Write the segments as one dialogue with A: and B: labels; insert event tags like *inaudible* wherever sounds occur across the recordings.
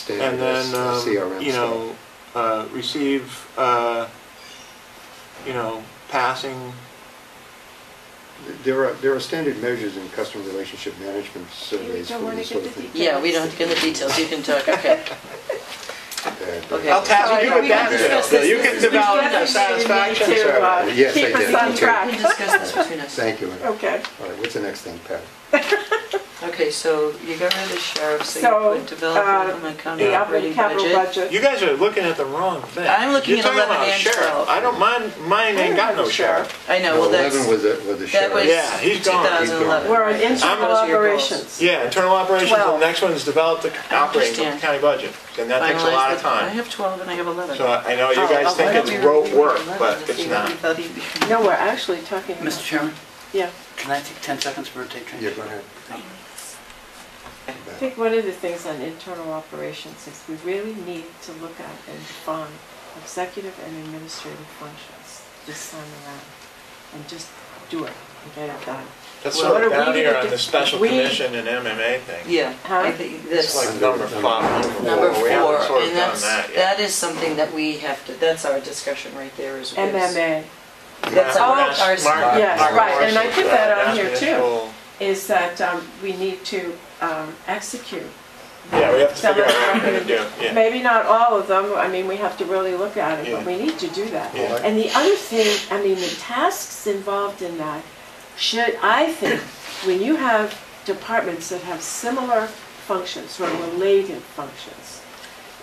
A: standard
B: And
A: as
B: then,
A: uh,
B: um,
A: CRM
B: you know,
A: stuff.
B: uh, receive, uh, you know, passing,
A: There are, there are standard measures in customer relationship management surveys
C: don't
A: for
C: wanna
A: this
C: get
A: sort of
C: the
A: thing.
D: Yeah, we don't have to get the details, you can talk,
C: *laughs*
D: okay.
A: And, uh,
D: Okay.
B: I'll tackle you
C: Sorry,
B: with
C: we
B: that,
C: gotta
A: discuss
B: Bill.
C: this.
B: you can
C: We've
B: develop
C: gotta
B: your satisfaction
C: need to,
B: survey.
C: uh,
A: Yes, I
C: keep us
A: did.
C: on
A: Okay.
D: We can
C: track. *laughs*
D: discuss this between us.
A: Thank you. Ann. All
C: Okay,
A: right, what's the next thing, Pat?
D: Okay, so you got rid of the sheriff, so
C: So,
D: you put develop
C: uh,
D: and implement common
C: the operating capital budget.
B: You guys are looking at the wrong thing.
D: I'm looking
B: You're
D: at
B: talking
D: 11
B: about
D: and
B: sheriff.
D: 12.
B: I don't, mine, mine ain't got no sheriff.
D: I know, well, that's,
A: Eleven was a, was a
D: that
A: sheriff.
D: was
B: Yeah, he's gone. He's
D: 2011.
A: gone.
C: We're on
D: right?
C: internal
D: Those are your goals.
C: operations.
B: Yeah, internal operations, and the
C: Twelve.
B: next one is develop the operating
D: understand.
B: county budget, and that takes a
D: Finalize
B: lot of
D: the- I
B: time.
D: have 12 and I have 11.
B: So I I know you
D: Oh,
B: guys
D: I'll
B: think
D: let
B: it's
D: you
B: rote
D: review
B: work,
D: 11
B: but
D: to
B: it's
D: see
B: not.
D: what you thought you-
C: No, we're actually talking about.
E: Mr. Chairman,
C: Yeah,
E: can I take 10 seconds for a tape change?
A: Yeah, go ahead.
C: I think one of the things on internal operations is we really need to look at and define executive and administrative functions this time around. And just do it and get it done.
B: That's
D: Well,
B: sort of
C: what are we
B: down here
C: gonna
B: on
C: do?
B: the special
C: We-
B: commission and MMA thing.
D: Yeah, I think
B: It's
D: this,
B: like number five,
D: number
B: number four.
D: four,
B: We haven't sort of
D: and
B: done
D: that's,
B: that yet.
D: that is something that we have to, that's our discussion right there is. is-
C: MMA
D: That's
B: Mark-
C: our-
B: Mark-
D: our-
B: Mark-
C: Yes,
B: Mark
C: right, and I put
B: Morris's,
C: that
B: uh,
C: on here too.
B: national-
C: is that um, we need to um, execute.
B: Yeah, we have to
C: some
B: figure
C: of
B: out
C: the
B: what we're gonna do,
C: recommendations.
B: yeah.
C: Maybe not all of them, I mean, we have to really look at it, but
B: Yeah.
C: we need to do that.
B: Yeah.
C: And the other thing, I mean, the tasks involved in that should, I think, when you have departments that have similar functions or related functions,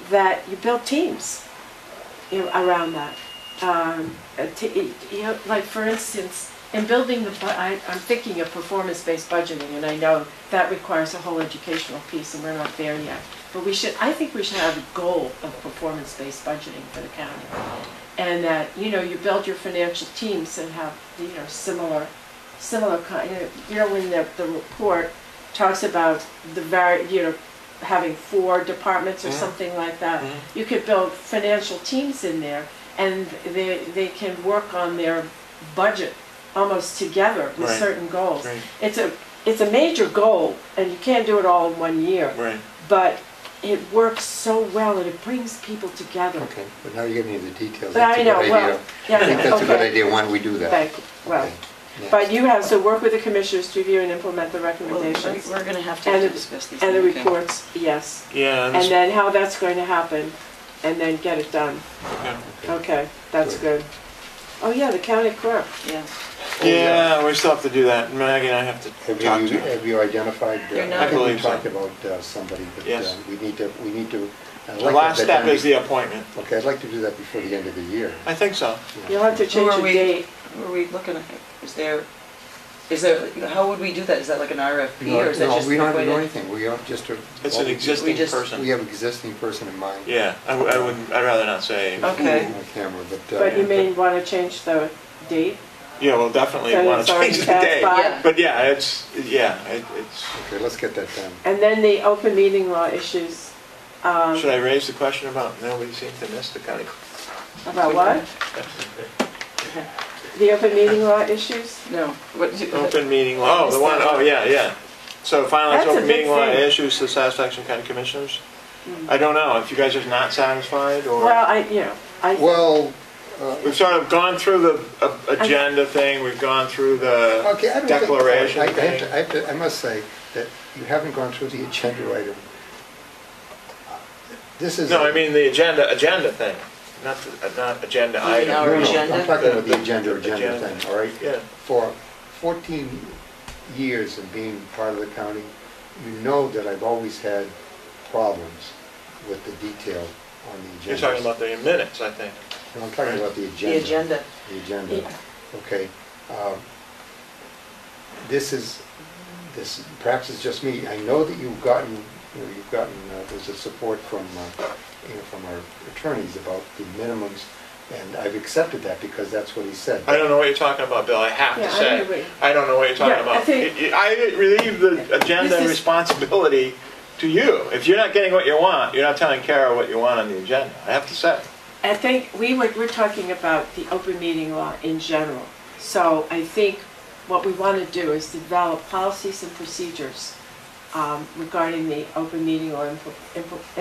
C: that you build teams you know, around that. Um, uh, t- you know, like for instance, in building the, bu- I, I'm thinking of performance-based budgeting, and I know that requires a whole educational piece, and we're not there yet. But we should, I think we should have a goal of performance-based budgeting for the county. And that, you know, you build your financial teams that have, you know, similar, similar kind, you know, when the, the report talks about the very, you know, having four departments or
B: Mhm.
C: something like that,
B: Mhm.
C: you could build financial teams in there, and they, they can work on their budget almost together with
B: Right.
C: certain goals.
B: Right.
C: It's a, it's a major goal, and you can't do it all in one year,
B: Right.
C: but it works so well, and it brings people together.
A: Okay, but now you're getting into the details.
C: But
A: That's
C: I
A: a good
C: know, well,
A: idea.
C: yeah,
A: I think *laughs* that's a good
C: okay.
A: idea, why don't we do that?
C: Thank you, well,
A: Okay, next.
C: but you have, so work with the commissioners to review and implement the
D: Well, we're
C: recommendations
D: going to have
C: And
D: to
C: the-
D: discuss these.
C: and the
D: things, okay.
C: reports, yes,
B: Yeah,
C: and
B: and
C: then how that's going to happen, and then get it done.
B: Yeah.
C: Okay, that's good. Oh, yeah, the county clerk,
D: Yeah.
B: Yeah, we still have to do that. Maggie and I have to
A: Have
B: talk
A: you,
B: to her.
A: have you identified, uh,
D: You're not-
A: I
B: I
A: think we
B: believe so.
A: talked about uh, somebody, but uh,
B: Yes.
A: we need to, we need to. I'd like
B: The
A: to
B: last
A: get
B: step
A: that-
B: is the appointment.
A: Okay, I'd like to do that before the end of the year.
B: I think so.
C: you'll have to change
D: are
C: your
D: we?
C: date.
D: What Are we looking at, is there, is there, how would we do that? Is that like an RFP
A: No,
D: or is that just?
A: No, we don't have to
D: appointed?
A: do anything, we are just. a-
B: It's an
A: we-
B: existing
D: just-
B: person.
A: We have existing person in mind.
B: Yeah, I, w- I wouldn't, I'd rather not say.
D: Okay.
A: On camera, but. uh,
C: But you may want to change the date?
B: Yeah, we'll definitely
C: So
B: want
C: it's
B: to
C: already
B: change the
C: passed
B: day.
C: by?
D: Yeah.
B: But yeah, it's, yeah, it- it's,
A: Okay, let's get that done.
C: And then the open meeting law issues, um,
B: should I raise the question about nobody seems to miss the county clerk?
C: about what? The open meeting law issues?
D: No, what,
B: Open meeting law, oh, the one, oh, yeah, yeah. So finally, it's
C: That's a
B: open
C: big
B: meeting law
C: thing. Hmm.
B: issues to satisfaction of county commissioners. I don't know, if you guys are not satisfied
C: Well,
B: or,
C: I, you know, I,
A: Well, uh,
B: we've sort of gone through the uh, agenda thing, we've gone through
A: okay, I don't
B: the
A: think. I-
B: declaration
A: I have to-
B: thing.
A: I have to, I must say that you haven't gone through the agenda item. This is.
B: No,
A: a-
B: I mean the agenda, agenda thing, not, the- uh, not agenda
D: You mean
B: item.
A: No,
D: Our
A: no,
D: agenda?
A: I'm talking about
B: The- the-
A: the agenda,
B: the
A: agenda
B: agenda.
A: thing, all right?
B: Yeah.
A: For 14 years of being part of the county, you know that I've always had problems with the detail on the agenda.
B: You're talking about the minutes, I think.
A: No, I'm talking about the
D: the
A: agenda.
D: agenda?
A: The agenda, okay. Um, This is, this, perhaps it's just me, I know that you've gotten, you know, you've gotten, uh, there's a support from, uh, you know, from our attorneys about the minimums, and I've accepted that because that's what he said.
B: I don't know what you're talking about, Bill, I have
C: Yeah,
B: to
C: I agree.
B: say. I don't know what you're
C: Yeah,
B: talking
C: I
B: about.
C: think-
B: I- I relieve the agenda
C: This is-
B: responsibility to you. If you're not getting what you want, you're not telling Kara what you want on the agenda, I have to say.
C: I think we were, we're talking about the open meeting law in general. So I think what we want to do is develop policies and procedures um, regarding the open meeting law impl- impl-